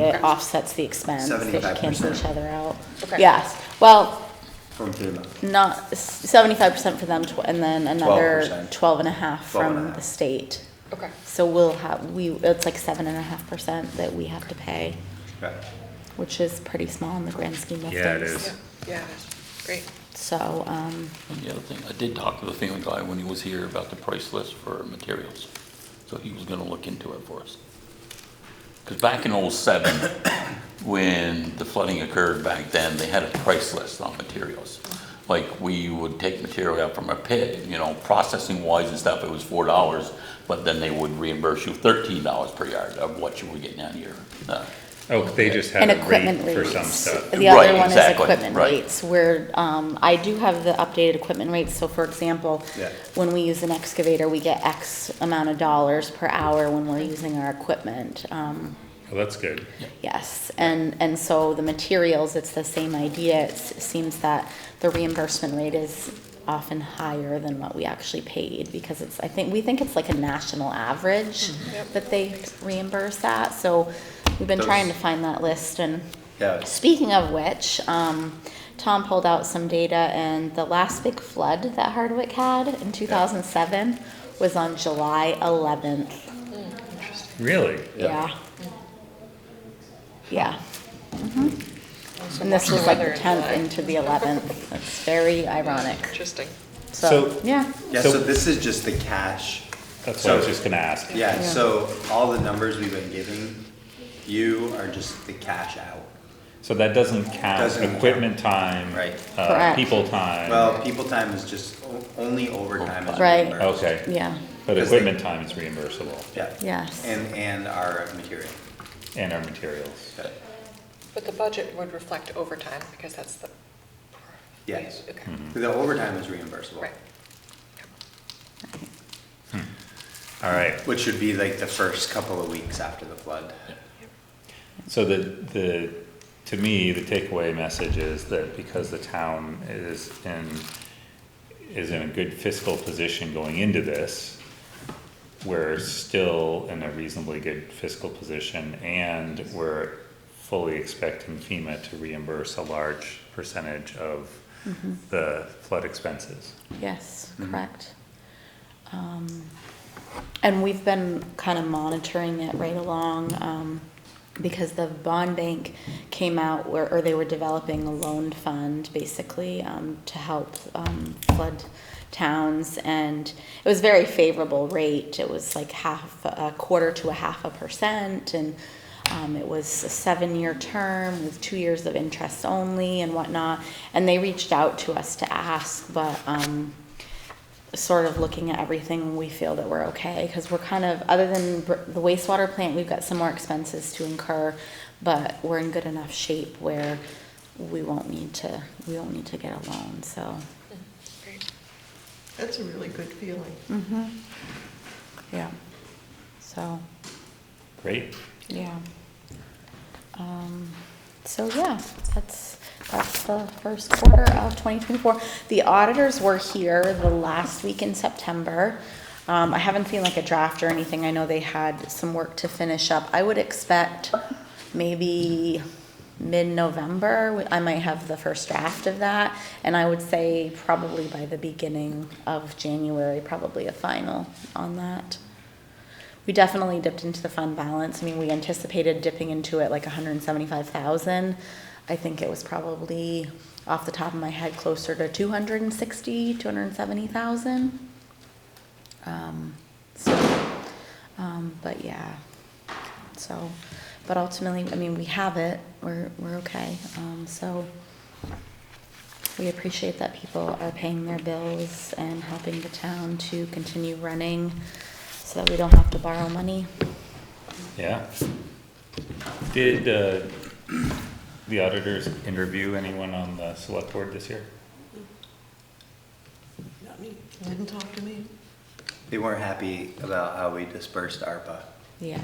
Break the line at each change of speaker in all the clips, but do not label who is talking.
it
Okay.
offsets the expense. They cancel
75%.
each other out.
Okay.
Yes, well,
from FEMA.
not, seventy-five percent for them, tw- and then another
12%.
twelve and a half
12 and a
from
half.
the state.
Okay.
So we'll have, we, it's like seven and a half percent that we have to pay,
Right.
which is pretty small in the grand scheme of things.
Yeah, it
Yeah,
is.
yeah, great.
So, um,
And the other thing, I did talk to the FEMA guy when he was here about the price list for materials. So he was gonna look into it for us. Because back in '07, when the flooding occurred back then, they had a price list on materials. Like, we would take material out from a pit, you know, processing wise and stuff, it was four dollars, but then they would reimburse you thirteen dollars per yard of what you were getting out of your, uh,
Oh, they just had
And
a
equipment
rate for
rates.
some stuff.
The other
Right,
one is
exactly,
equipment
right.
rates, where, um, I do have the updated equipment rates, so for example,
Yeah.
when we use an excavator, we get X amount of dollars per hour when we're using our equipment, um,
Oh, that's good.
yes. And, and so the materials, it's the same idea, It's- it seems that the reimbursement rate is often higher than what we actually paid, because it's, I think, we think it's like a national average
Yep.
that they reimburse at, so we've been
Those-
trying to find that list and.
Yeah,
Speaking of which, um, Tom pulled out some data, and the last big flood that Hardwick had in 2007 was on July 11th.
Really?
Yeah.
Yeah. Yeah.
So
And this
watch
was
Mm-hmm. the
like
weather
the
in
10th
July.
into the 11th. It's very ironic.
Interesting.
So,
So-
yeah.
yeah, so this is just the cash.
That's what I was
So-
just gonna ask.
Yeah,
Yeah.
so all the numbers we've been giving you are just the cash out.
So that doesn't count
Doesn't count.
equipment time.
Right.
Uh,
Correct.
people time.
Well, people time is just o- only overtime is
Right.
reimbursed.
Okay,
Yeah.
but
Because they-
equipment time is reimbursable
Yeah.
Yes.
And, and our material.
and our materials.
Yeah.
But the budget would reflect overtime because that's the.
Yes. Mm-hmm.
Okay,
The overtime is reimbursable.
right.
All right,
Which should be like the first couple of weeks after the flood.
So the, the, to me, the takeaway message is that because the town is in, is in a good fiscal position going into this, we're still in a reasonably good fiscal position and we're fully expecting FEMA to reimburse a large percentage of the flood expenses.
Yes,
Mm-hmm.
correct. Um, And we've been kind of monitoring it right along, um, because the bond bank came out, where- or they were developing a loan fund, basically, um, to help um, flood towns, and it was very favorable rate, it was like half, a quarter to a half a percent, and um, it was a seven-year term with two years of interest only and whatnot, and they reached out to us to ask, but, um, sort of looking at everything, we feel that we're okay, because we're kind of, other than br- the wastewater plant, we've got some more expenses to incur, but we're in good enough shape where we won't need to, we won't need to get a loan, so,
Mm-hmm. Great.
That's a really good feeling.
yeah. So,
Great.
yeah. Um, So, yeah, that's, that's the first quarter of 2024. The auditors were here the last week in September. Um, I haven't seen like a draft or anything. I know they had some work to finish up. I would expect maybe mid-November, we- I might have the first draft of that. And I would say probably by the beginning of January, probably a final on that. We definitely dipped into the fund balance. I mean, we anticipated dipping into it like hundred and seventy-five thousand. I think it was probably, off the top of my head, closer to 260, 270,000. Um, so, um, but yeah, so, but ultimately, I mean, we have it, we're, we're okay, um, so. We appreciate that people are paying their bills and helping the town to continue running so that we don't have to borrow money.
Yeah. Did, uh, the auditors interview anyone on the select board this year?
Not me. Didn't talk to me.
They weren't happy about how we dispersed ARPA.
Yeah.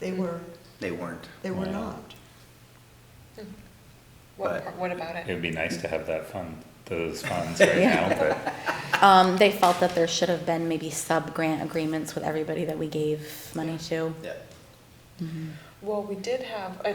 They were,
They weren't.
they were
Yeah.
not.
What,
But-
part- what about
It
it?
would be nice to have that fund, those funds right now, but,
Um, they felt that there should have been maybe sub-grant agreements with everybody that we gave money to.
Yeah.
Well, we did have, I